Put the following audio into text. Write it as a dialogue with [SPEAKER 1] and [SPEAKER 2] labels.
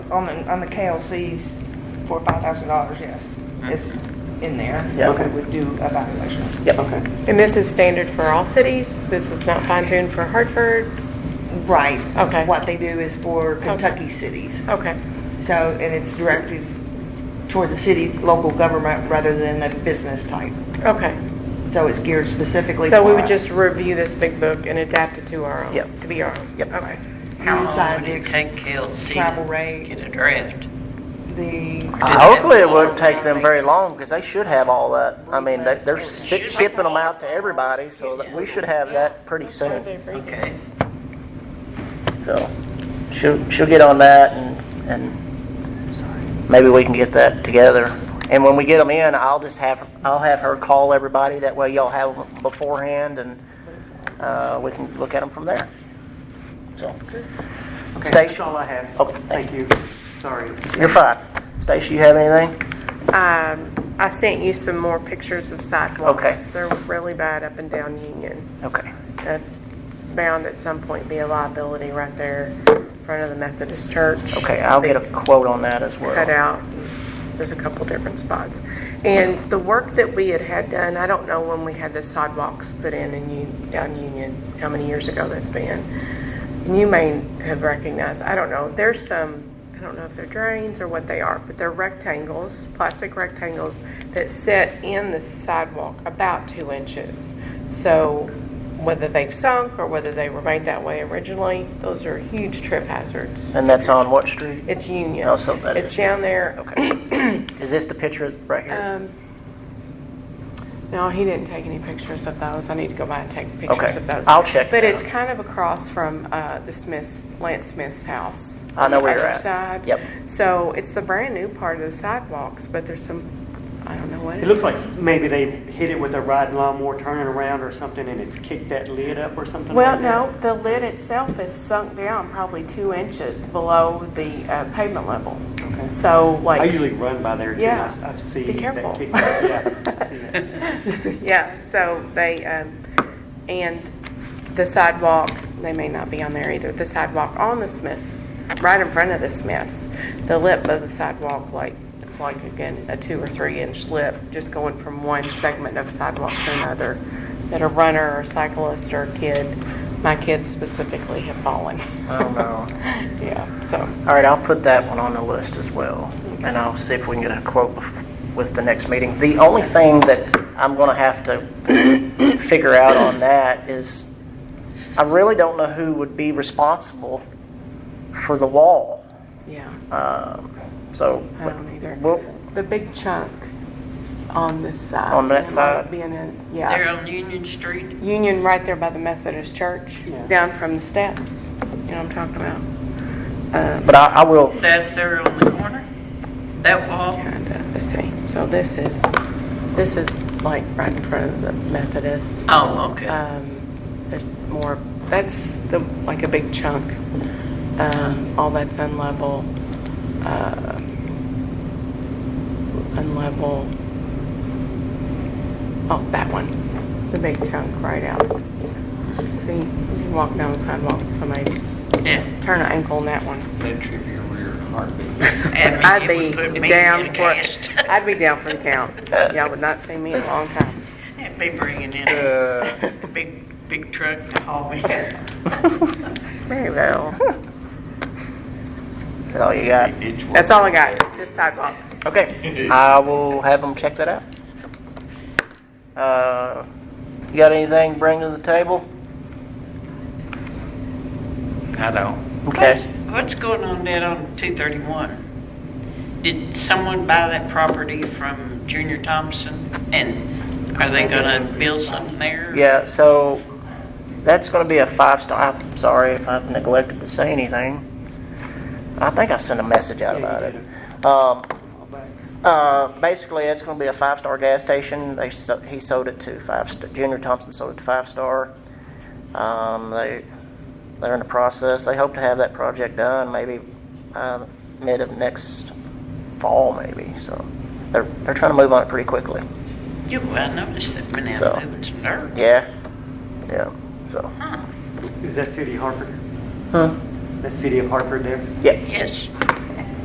[SPEAKER 1] on, the- on the KLCs for five thousand dollars, yes. It's in there.
[SPEAKER 2] Yeah, okay.
[SPEAKER 1] We would do evaluations.
[SPEAKER 2] Yep, okay.
[SPEAKER 3] And this is standard for all cities? This is not fine-tuned for Hartford?
[SPEAKER 1] Right.
[SPEAKER 3] Okay.
[SPEAKER 1] What they do is for Kentucky cities.
[SPEAKER 3] Okay,
[SPEAKER 1] So, and it's directed toward the city, local government, rather than a business type.
[SPEAKER 3] okay.
[SPEAKER 1] So it's geared specifically.
[SPEAKER 3] So we
[SPEAKER 1] for
[SPEAKER 3] would
[SPEAKER 1] us.
[SPEAKER 3] just review this big book and adapt it to our own?
[SPEAKER 2] Yep.
[SPEAKER 3] To be our own?
[SPEAKER 2] Yep.
[SPEAKER 3] Okay.
[SPEAKER 1] You
[SPEAKER 4] How
[SPEAKER 1] decide
[SPEAKER 4] long would
[SPEAKER 1] the
[SPEAKER 4] it
[SPEAKER 1] ex-
[SPEAKER 4] take KLC
[SPEAKER 1] travel
[SPEAKER 4] to
[SPEAKER 1] rate.
[SPEAKER 4] get a draft?
[SPEAKER 1] The,
[SPEAKER 2] Uh, Hopefully it wouldn't take them very long because they should have all that. I mean, they- they're shi- shipping them out to everybody, so that we should have that pretty soon.
[SPEAKER 4] Okay.
[SPEAKER 2] So she'll, she'll get on that and, and maybe we can get that together. And when we get them in, I'll just have, I'll have her call everybody. That way y'all have them beforehand and, uh, we can look at them from there. So,
[SPEAKER 5] Okay,
[SPEAKER 2] Station.
[SPEAKER 5] that's all I have.
[SPEAKER 2] Okay, thank
[SPEAKER 5] Thank you. Sorry.
[SPEAKER 2] you're fine. Stacy, you have anything?
[SPEAKER 3] Um, I sent you some more pictures of
[SPEAKER 2] Okay.
[SPEAKER 3] sidewalks. They're really bad up and down Union.
[SPEAKER 2] Okay.
[SPEAKER 3] That's bound at some point be a liability right there in front of the Methodist Church.
[SPEAKER 2] Okay, I'll get a quote on that as well.
[SPEAKER 3] cut out. There's a couple different spots. And the work that we had had done, I don't know when we had the sidewalks put in in U- down Union, how many years ago that's been. And You may have recognized, I don't know, there's some, I don't know if they're drains or what they are, but they're rectangles, plastic rectangles that sit in the sidewalk about two inches. So whether they've sunk or whether they were made that way originally, those are huge trip hazards.
[SPEAKER 2] And that's on what street?
[SPEAKER 3] It's Union.
[SPEAKER 2] Oh, so that
[SPEAKER 3] It's
[SPEAKER 2] is-
[SPEAKER 3] down there.
[SPEAKER 2] Is this the picture right here?
[SPEAKER 3] Um, No, he didn't take any pictures of those. I need to go by and take pictures
[SPEAKER 2] Okay.
[SPEAKER 3] of those.
[SPEAKER 2] I'll check
[SPEAKER 3] But
[SPEAKER 2] that
[SPEAKER 3] it's
[SPEAKER 2] out.
[SPEAKER 3] kind of across from uh, the Smith, Lance Smith's house.
[SPEAKER 2] I know where you're
[SPEAKER 3] On
[SPEAKER 2] at.
[SPEAKER 3] the other side.
[SPEAKER 2] Yep.
[SPEAKER 3] So it's the brand new part of the sidewalks, but there's some, I don't know what it
[SPEAKER 5] It
[SPEAKER 3] is.
[SPEAKER 5] looks like maybe they hit it with a riding lawnmower turning around or something and it's kicked that lid up or something
[SPEAKER 3] Well,
[SPEAKER 5] like that.
[SPEAKER 3] no, the lid itself is sunk down probably two inches below the uh, pavement level.
[SPEAKER 5] Okay.
[SPEAKER 3] So
[SPEAKER 5] I
[SPEAKER 3] like,
[SPEAKER 5] usually run by there too.
[SPEAKER 3] Yeah.
[SPEAKER 5] I- I see
[SPEAKER 3] Be
[SPEAKER 5] that
[SPEAKER 3] careful.
[SPEAKER 5] kicked out. Yeah, I see that.
[SPEAKER 3] Yeah, so they, um, and the sidewalk, they may not be on there either, the sidewalk on the Smiths, right in front of the Smiths, the lip of the sidewalk, like, it's like, again, a two or three inch lip, just going from one segment of sidewalk to another, that a runner or cyclist or kid, my kids specifically have fallen.
[SPEAKER 2] I don't know.
[SPEAKER 3] Yeah, so,
[SPEAKER 2] All right, I'll put that one on the list as well, and I'll see if we can get a quote bef- with the next meeting. The only thing that I'm going to have to figure out on that is, I really don't know who would be responsible for the wall.
[SPEAKER 3] yeah,
[SPEAKER 2] Um, So,
[SPEAKER 3] I don't either.
[SPEAKER 2] well,
[SPEAKER 3] The big chunk on this side.
[SPEAKER 2] On that
[SPEAKER 3] it might
[SPEAKER 2] side?
[SPEAKER 3] be in a- yeah.
[SPEAKER 4] They're on Union Street?
[SPEAKER 3] Union right there by the Methodist Church,
[SPEAKER 5] Yeah.
[SPEAKER 3] down from the steps. You know what I'm talking about? Um,
[SPEAKER 2] but I I will,
[SPEAKER 4] That there on the corner? That wall?
[SPEAKER 3] Kinda. Let's see. So this is this is like right in front of the Methodist.
[SPEAKER 4] Oh, okay.
[SPEAKER 3] Um, there's more. That's the like a big chunk. Um, all that's unlevel. Uh, unlevel. Oh, that one. The big chunk right out. See, you can walk down the sidewalk. Somebody
[SPEAKER 4] Yeah.
[SPEAKER 3] turn an ankle on that one.
[SPEAKER 6] That trip your rear heartbeat.
[SPEAKER 4] And
[SPEAKER 3] I'd
[SPEAKER 4] if
[SPEAKER 3] be
[SPEAKER 4] you put me in
[SPEAKER 3] down
[SPEAKER 4] a
[SPEAKER 3] for,
[SPEAKER 4] cast,
[SPEAKER 3] I'd be down for the count. Y'all would not see me in a long time.
[SPEAKER 4] I'd be bringing in a big, big truck to haul me.
[SPEAKER 3] Very well.
[SPEAKER 2] is that all you got?
[SPEAKER 6] It's worth
[SPEAKER 3] That's all I got, just sidewalks.
[SPEAKER 2] Okay, I will have them check that out. Uh, You got anything to bring to the table?
[SPEAKER 6] it. I don't.
[SPEAKER 2] Okay.
[SPEAKER 4] What's going on down on 231? Did someone buy that property from Junior Thompson? And are they going to build something there?
[SPEAKER 2] Yeah, so that's going to be a five-star, I'm sorry if I've neglected to say anything. I think I sent a message out
[SPEAKER 5] Yeah, you
[SPEAKER 2] about
[SPEAKER 5] did.
[SPEAKER 2] it. Um,
[SPEAKER 5] All back.
[SPEAKER 2] uh, Basically, it's going to be a five-star gas station. They, so- he sold it to five, st- Junior Thompson sold it to Five Star. Um, They, they're in the process, they hope to have that project done maybe uh, mid of next fall, maybe, so they're, they're trying to move on it pretty quickly.
[SPEAKER 4] You, I noticed that been
[SPEAKER 2] So-
[SPEAKER 4] out moving some dirt.
[SPEAKER 2] Yeah, yeah, so.
[SPEAKER 4] Huh,
[SPEAKER 5] Is that City of Hartford?
[SPEAKER 2] Huh?
[SPEAKER 5] That City of Hartford there?
[SPEAKER 2] Yeah.
[SPEAKER 4] yes.